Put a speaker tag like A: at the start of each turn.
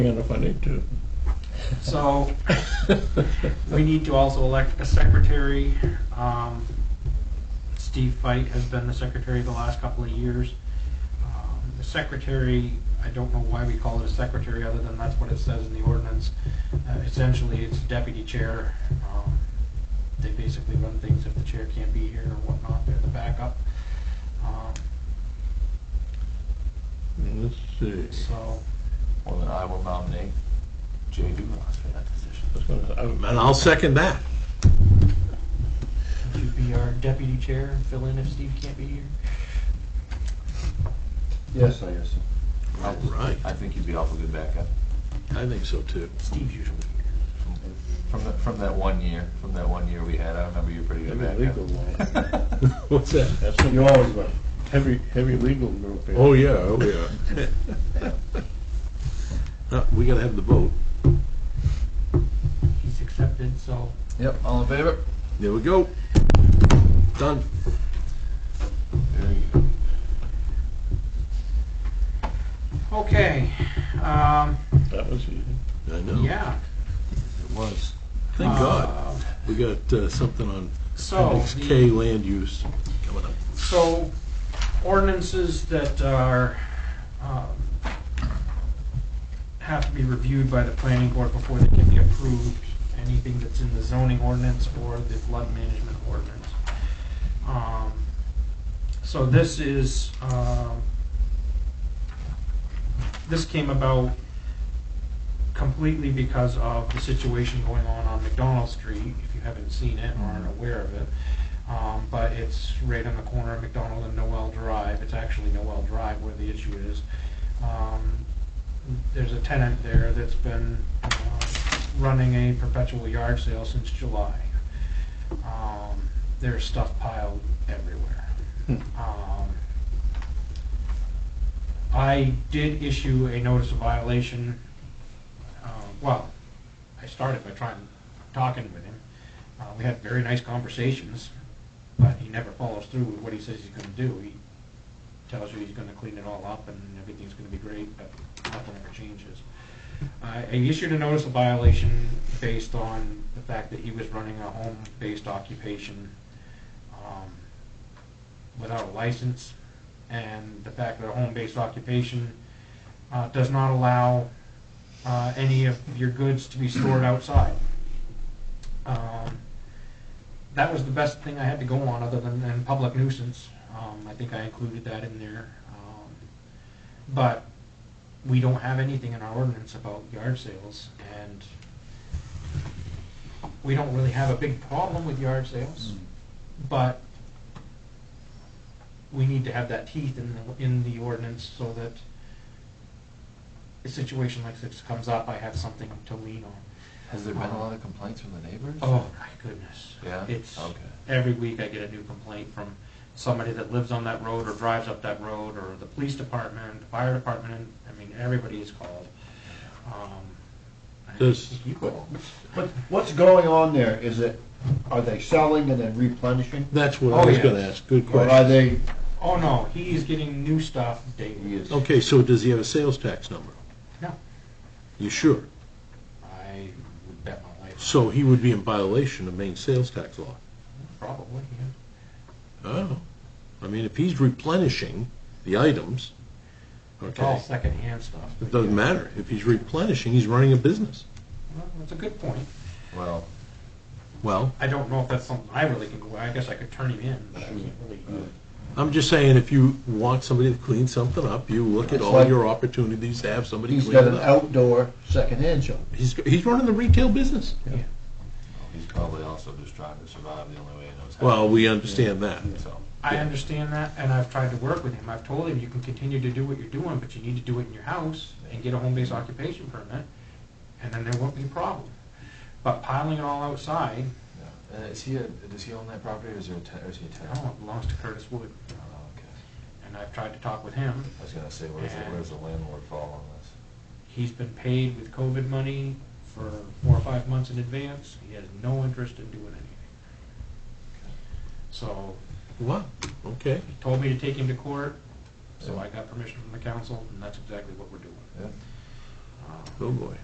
A: hand if I need to.
B: So we need to also elect a secretary. Um, Steve Fite has been the secretary the last couple of years. Um, The secretary, I don't know why we call it a secretary, other than that's what it says in the ordinance. Uh, Essentially, it's deputy chair. Um, They basically run things if the chair can't be here or whatnot, they're the backup. Um,
A: Let's see.
B: So,
C: Well, then I will nominate Jay Dumas for that position.
A: I was gonna- And I'll second that.
B: would you be our deputy chair and fill in if Steve can't be here?
D: Yes, I guess.
C: I-
A: Right.
C: I think he'd be awful good backup.
A: I think so too.
B: Steve's usually here.
C: From, the- from that one year, from that one year we had, I remember you were pretty good
A: Maybe legal
C: backup.
A: What's that?
D: That's what you always were. Heavy, heavy legal group here.
A: Oh, yeah, oh, yeah. Uh, We gotta have the vote.
B: He's accepted, so
C: Yep, all in favor?
A: There we go. Done.
C: There you go.
B: Okay, um,
A: That was easy. I know.
B: yeah.
C: It was.
A: Thank God.
B: Um,
A: We got uh, something on
B: So,
A: appendix K
B: the,
A: land use coming up.
B: so ordinances that are, um, have to be reviewed by the planning board before they can be approved. Anything that's in the zoning ordinance or the flood management ordinance. Um, So this is, um, this came about completely because of the situation going on on McDonald Street, if you haven't seen it or aren't aware of it. Um, but it's right on the corner of McDonald and Noel Drive. It's actually Noel Drive where the issue is. Um, there's a tenant there that's been, uh, running a perpetual yard sale since July. Um, there's stuff piled everywhere.
D: Hmm.
B: Um, I did issue a notice of violation, uh, well, I started by trying, talking with him. Uh, we had very nice conversations, but he never follows through with what he says he's gonna do. He tells you he's gonna clean it all up and everything's gonna be great, but nothing ever changes. I I issued a notice of violation based on the fact that he was running a home-based occupation, um, without a license, and the fact that a home-based occupation uh, does not allow uh, any of your goods to be stored outside. Um, That was the best thing I had to go on, other than, than public nuisance. Um, I think I included that in there. Um, But we don't have anything in our ordinance about yard sales, and we don't really have a big problem with yard sales, but we need to have that teeth in the, in the ordinance so that a situation like this comes up, I have something to lean on.
C: Has there been a lot of complaints from the neighbors?
B: Oh, my goodness.
C: Yeah?
B: It's,
C: Okay.
B: every week I get a new complaint from somebody that lives on that road or drives up that road, or the police department, the fire department, I mean, everybody is called. Um, I-
A: Does-
B: You call.
D: But what's going on there? Is it, are they selling and then replenishing?
A: That's what
B: Oh,
A: I was
B: yeah.
A: gonna ask. Good
D: Or are
A: question.
D: they,
B: Oh, no, he's getting new stuff daily.
D: is,
A: Okay, so does he have a sales tax number?
B: No,
A: You sure?
B: I would bet my life,
A: So he would be in violation of Maine sales tax law?
B: probably, yeah.
A: I don't know. I mean, if he's replenishing the items,
B: It's all
A: okay,
B: secondhand stuff.
A: it doesn't matter. If he's replenishing, he's running a business.
B: Well, That's a good point.
C: Well,
A: Well,
B: I don't know if that's something I really can go, I guess I could turn him in, but I can't really.
A: I'm just saying, if you want somebody to clean something up, you look at
D: It's
A: all
D: like-
A: your opportunities to have somebody
D: he's
A: clean
D: got
A: it
D: an
A: up.
D: outdoor secondhand shop.
A: He's, he's running the retail business.
B: Yeah.
C: he's probably also just trying to survive the only way he knows how.
A: Well, we understand that.
C: So,
B: I
A: Yeah.
B: understand that, and I've tried to work with him. I've told him, you can continue to do what you're doing, but you need to do it in your house and get a home-based occupation permit, and then there won't be a problem. But piling it all outside,
C: yeah. And Uh, is he, a- does he own that property or is there a tenant, or is he a tenant?
B: no, it belongs to Curtis Wood,
C: Oh, okay.
B: and I've tried to talk with him.
C: I was gonna say, where's, the- where's the landlord fall on this?
B: He's been paid with COVID money for four or five months in advance. He has no interest in doing anything. So
A: Wow, okay.
B: he told me to take him to court, so I got permission from the council, and that's exactly what we're doing.
C: Yeah.
B: Oh, boy.